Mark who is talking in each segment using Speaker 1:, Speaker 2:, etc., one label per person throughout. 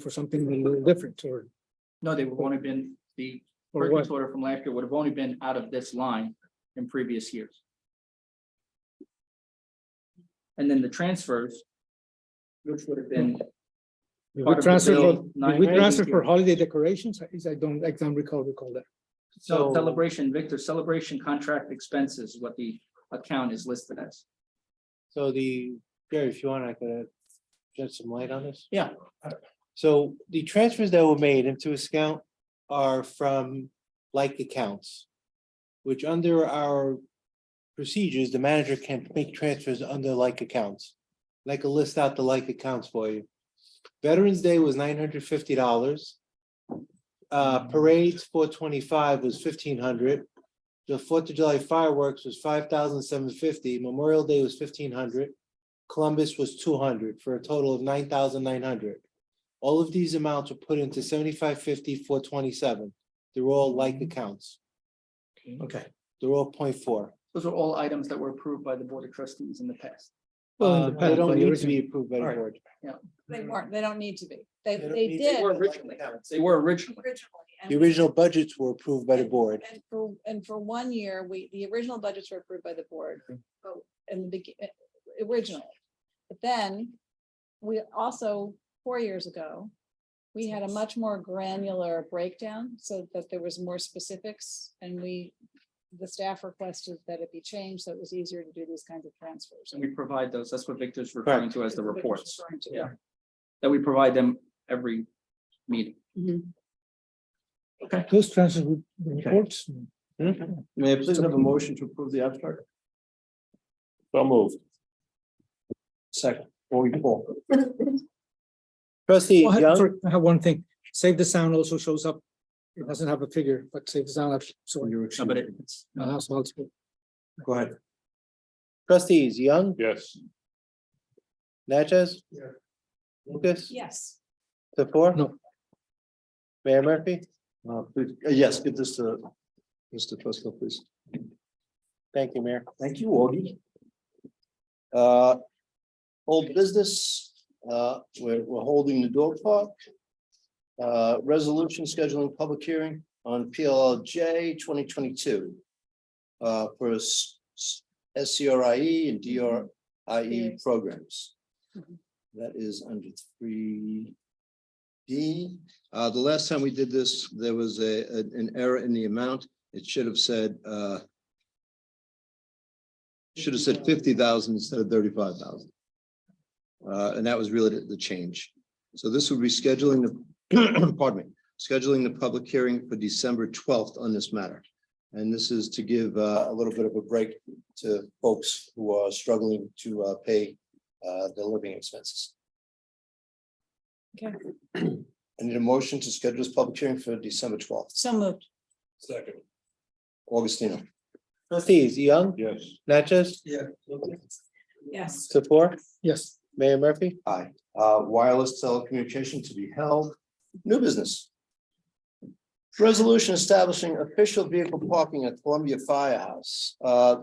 Speaker 1: for something a little different or,
Speaker 2: No, they would only been, the
Speaker 1: or what?
Speaker 2: purchase order from last year would have only been out of this line in previous years. And then the transfers. Which would have been,
Speaker 1: Did
Speaker 2: part
Speaker 1: We
Speaker 2: of the
Speaker 1: transfer,
Speaker 2: bill,
Speaker 1: for- did we
Speaker 2: 980.
Speaker 1: transfer for holiday decorations? I I don't, I don't recall, recall that.
Speaker 2: so
Speaker 3: Oh.
Speaker 1: So-
Speaker 2: celebration, Victor, celebration contract expenses, what the account is listed as.
Speaker 4: So the, Gary, if you want, I could uh, shed some light on this.
Speaker 2: Yeah.
Speaker 4: So the transfers that were made into this account are from like accounts. Which under our procedures, the manager can make transfers under like accounts. Like a list out the like accounts for you. Veterans Day was nine hundred fifty dollars. Uh, parades, four twenty-five was fifteen hundred. The Fourth of July fireworks was five thousand seven fifty, Memorial Day was fifteen hundred. Columbus was two hundred for a total of nine thousand nine hundred. All of these amounts were put into seventy-five fifty, four twenty-seven. They're all like accounts.
Speaker 1: Okay.
Speaker 4: They're all point four.
Speaker 2: Those are all items that were approved by the Board of Trustees in the past.
Speaker 1: Well,
Speaker 4: Uh,
Speaker 1: in the past,
Speaker 4: They
Speaker 1: but
Speaker 4: don't
Speaker 1: the
Speaker 4: need to be
Speaker 1: original-
Speaker 4: approved by the
Speaker 1: Alright.
Speaker 4: board.
Speaker 5: They
Speaker 2: Mhm.
Speaker 5: weren't, they don't need to be. They,
Speaker 4: They don't
Speaker 5: they
Speaker 4: need to.
Speaker 5: did
Speaker 2: They were originally, they were originally.
Speaker 5: originally. and
Speaker 4: The
Speaker 5: we-
Speaker 4: original budgets were approved by the board.
Speaker 5: And for, and for one year, we, the original budgets were approved by the board, but in the begin, eh, originally. But then, we also, four years ago, we had a much more granular breakdown, so that there was more specifics, and we, the staff requested that it be changed, so it was easier to do these kinds of transfers.
Speaker 2: And we provide those, that's what Victor's referring to as the
Speaker 5: That's what Victor's
Speaker 2: reports,
Speaker 5: referring to.
Speaker 2: Yeah. that we provide them every meeting.
Speaker 1: Those transfers with the reports.
Speaker 3: May I please have a motion to approve the abstract?
Speaker 6: So moved.
Speaker 3: Second. Or you pull.
Speaker 4: Trustee
Speaker 1: Oh, I-
Speaker 4: Young,
Speaker 1: sorry, I have one thing. Save the sound also shows up. It doesn't have a figure, but save the sound. actually- So.
Speaker 2: No, but it- it's,
Speaker 1: Uh, that's multiple.
Speaker 3: Go ahead.
Speaker 4: trustees Young,
Speaker 6: Yes,
Speaker 4: Natchez?
Speaker 3: Yeah.
Speaker 4: Lucas?
Speaker 5: Yes.
Speaker 4: The four?
Speaker 1: No.
Speaker 4: Mayor Murphy?
Speaker 3: Uh, please- uh, Yes, give this to Mr. Fusco, please.
Speaker 4: Thank you, Mayor.
Speaker 3: Thank you, Augie. Uh, Old business, uh, we're, we're holding the dog park. Uh, Resolution scheduling public hearing on PLLJ twenty twenty-two. Uh, for S- S- SCRIE E and DRIE
Speaker 5: Yes.
Speaker 3: E programs.
Speaker 5: Mhm.
Speaker 3: That is under three D. Uh, the last time we did this, there was a, a- an error in the amount. It should have said, uh, should have said fifty thousand instead of thirty-five thousand. Uh, and that was really the, the change. So this would be scheduling the, pardon me, scheduling the public hearing for December twelfth on this matter. And this is to give, uh, a little bit of a break to folks who are struggling to, uh, pay, uh, their living expenses.
Speaker 5: Okay.
Speaker 3: I need a motion to schedule this public hearing for December twelfth.
Speaker 5: So moved.
Speaker 3: Second. Augustino.
Speaker 4: Trustees Young,
Speaker 6: yes,
Speaker 4: Natchez?
Speaker 3: Yeah.
Speaker 5: Yes.
Speaker 4: The four?
Speaker 1: Yes.
Speaker 4: Mayor Murphy?
Speaker 3: Aye. Uh, wireless telecommunication to be held. New business. Resolution establishing official vehicle parking at Columbia Firehouse. Uh.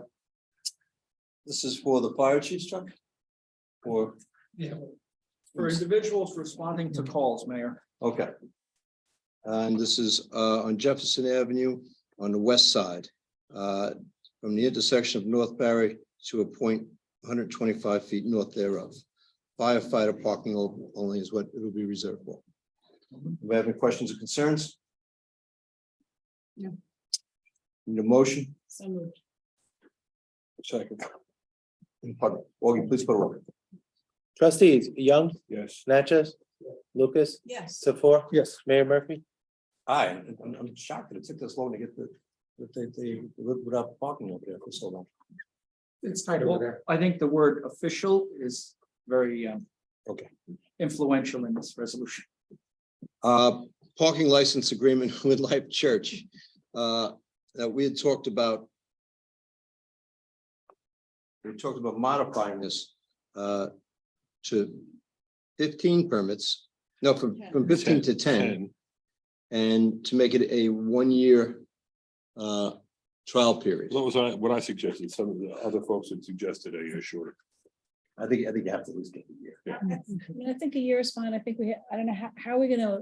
Speaker 3: This is for the fire chief's truck? Or,
Speaker 2: for individuals responding to calls, Mayor.
Speaker 3: okay. And this is, uh, on Jefferson Avenue on the west side. Uh, from the intersection of North Barry to a point one hundred twenty-five feet north thereof. Firefighter parking o- only is what it will be reserved for. Do we have any questions or concerns?
Speaker 5: No.
Speaker 3: Need a motion?
Speaker 5: So moved.
Speaker 3: Second. Pardon, Augie, please put a roll.
Speaker 4: Trustees Young,
Speaker 6: yes.
Speaker 4: Natchez? Lucas?
Speaker 5: Yes.
Speaker 4: The four?
Speaker 1: Yes.
Speaker 4: Mayor Murphy?
Speaker 3: Aye, I'm, I'm shocked that it took this long to get the, that they, they, without parking over there for so long.
Speaker 1: It's tight
Speaker 2: over
Speaker 1: there.
Speaker 2: I think the word official is very um.
Speaker 3: Okay.
Speaker 2: Influential in this resolution.
Speaker 3: Uh, parking license agreement with Life Church, uh, that we had talked about. We talked about modifying this, uh, to fifteen permits, no, from, from fifteen to ten. And to make it a one-year, uh, trial period.
Speaker 6: That was I- what I suggested. Some of the other folks had suggested a year shorter.
Speaker 3: I think, I think you have to at least get a year.
Speaker 5: I mean, I think a year is fine. I think we, ha- I don't know, how, how are we gonna